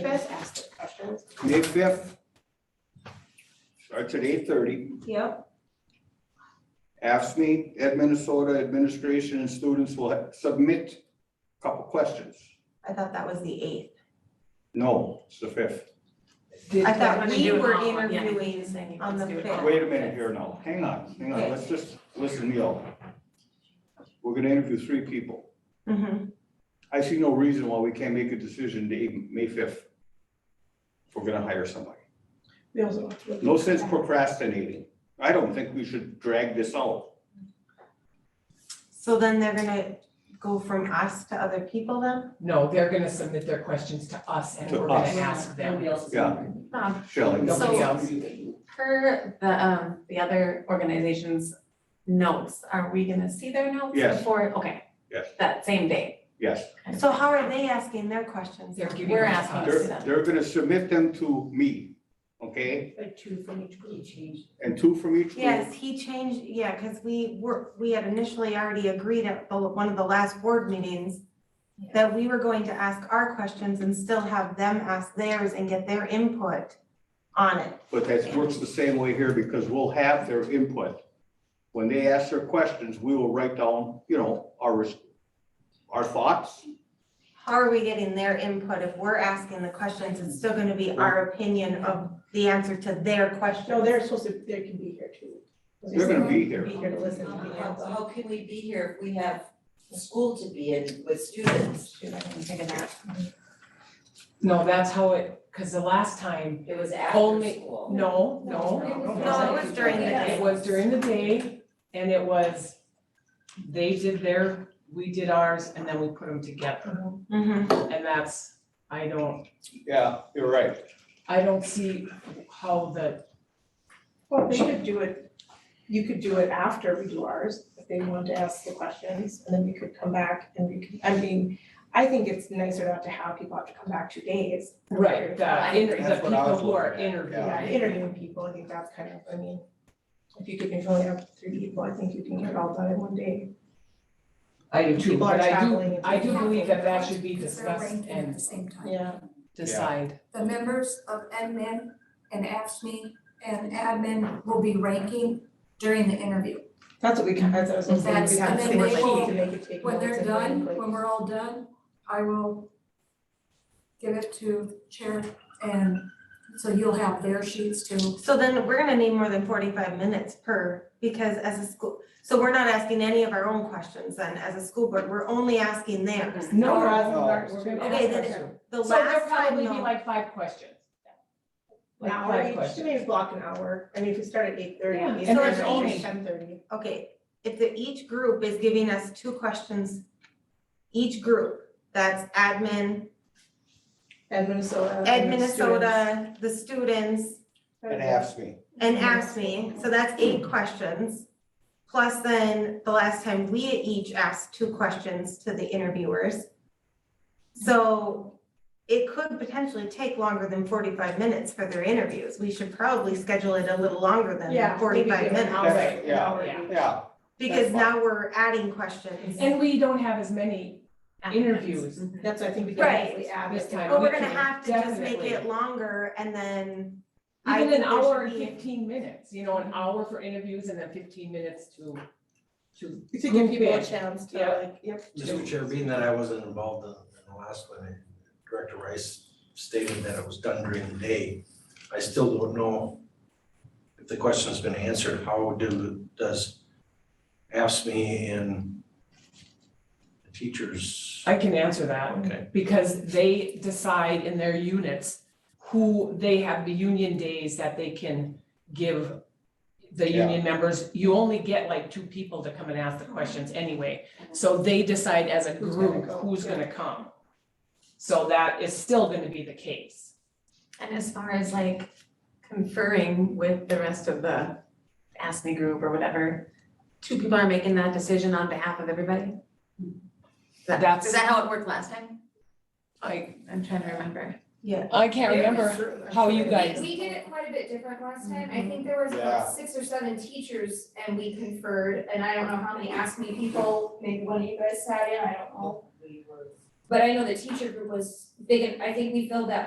just ask the questions. May fifth. Starts at eight thirty. Yep, AFSMI, Ed Minnesota Administration and students will ha- submit a couple questions. I thought that was the eighth. No, it's the fifth. I thought We're we doing were all- yeah, you interviewing just saying you on just the do it fifth. all. Wait a minute here now. Hang on, hang on. Let's just listen me out. We're gonna interview three people. Mhm. I see no reason why we can't make a decision to even May fifth. If we're gonna hire somebody. We also have to look No sense procrastinating. I don't think we should drag this out. So then they're gonna go from us to other people then? No, they're gonna submit their questions to us and To we're gonna us. ask them. Nobody else is Yeah. wondering. Um, Shelley, Nobody So- else. Per the, um, the other organization's notes, are we gonna see their notes Yes. before? Okay. Yes. That same day. yes. So how are they asking their questions? They're giving We're them to asking us. to They're, they're gonna submit them to me, okay? Like two from each group. And two from each group. Yes, he changed, yeah, because we were, we had initially already agreed at the, one of the last board meetings that we were going to ask our questions and still have them ask theirs and get their input on it. But that works the same way here because we'll have their input. When they ask their questions, we will write down, you know, our, res- our thoughts. How are we getting their input if we're asking the questions? It's still gonna be our opinion of the answer to their question. No, they're supposed to, they can be here too. They're gonna be here. Be here to Um, listen. to the How, council. how can we be here if we have school to be in with students? Shoot, I didn't think of that. No, that's how it, cause the last time, It was after Only- school. no, no. No, it was during the It day. was during the day and it was, they did their, we did ours and then we put them together. Mhm. And that's, I don't, Yeah, you're right. I don't see how the, Well, they could do it, you could do it after we do ours, if they want to ask the questions, and then we could come back and we could, I mean, I think it's nicer not to have people have to come back two days. right, Yeah, the, inter- the That's what I people was who are looking at, interviewing. yeah. interviewing people, I think that's kind of, I mean, if you could control it up to three people, I think you can get it all done in one day. I do too, People are but I traveling do, and I do things believe that that should be Because they're discussed ranking At and the same time. Yeah. decide. The members of admin and AFSMI and admin will be ranking during the interview. That's what we can, that's what I was gonna say, That's- we have and to then make they sure will- to make it take When notes they're and then, done, like, when we're all done, I will give it to chair and so you'll have their sheets too. So then we're gonna need more than forty-five minutes per, because as a school, so we're not asking any of our own questions then, as a school board, we're only asking theirs. No, Or we're as no. ours too. gonna Okay, ask then- questions. The So there'll last time, probably be no, like five questions. An Like hour five each, questions. maybe block an hour, I mean, if we start at eight thirty, Yeah, maybe and start there's at only- ten thirty. okay, if the, each group is giving us two questions, each group, that's admin, Ed Minnesota. Ed Minnesota, the students, And ask me. Mm-hmm. and asked me, so that's eight questions. Plus then, the last time we each asked two questions to the interviewers. So it could potentially take longer than forty-five minutes for their interviews. We should probably schedule it a little longer than Yeah, maybe forty-five give an minutes. hour, That's- an yeah, hour yeah. each. Yeah, Because that's fine. now we're adding questions. And we don't have as many interviews. Mm-hmm. That's what I think we Right. can we add This it. time. But we we're gonna can have to just make definitely- it longer and then. I Even an think there should hour and be- fifteen minutes, you know, an hour for interviews and then fifteen minutes to, to. To give people a group chance to Yeah. like, yep. Mr. Chair, being that I wasn't involved in, in the last one, and Director Rice stated that it was done during the day. I still don't know if the question's been answered, how do, does AFSMI E and the teachers? I can answer that, Okay, because they decide in their units who, they have the union days that they can give the Yeah. union members. You only get like two people to come and ask the questions anyway, so they decide as a Who's gonna group go, who's yeah. gonna come. So that is still gonna be the case. And as far as like conferring with the rest of the Ask Me group or whatever, two people are making that decision on behalf of everybody? Is that- That's- Is that how it worked last time? I, I'm trying to remember. I can't how you guys- We did it quite a bit different last time, I think there was about six or seven teachers and we conferred, and I don't know how many asked me people, maybe one of you guys sat in, I don't know. But I know the teacher group was big, and I think we filled that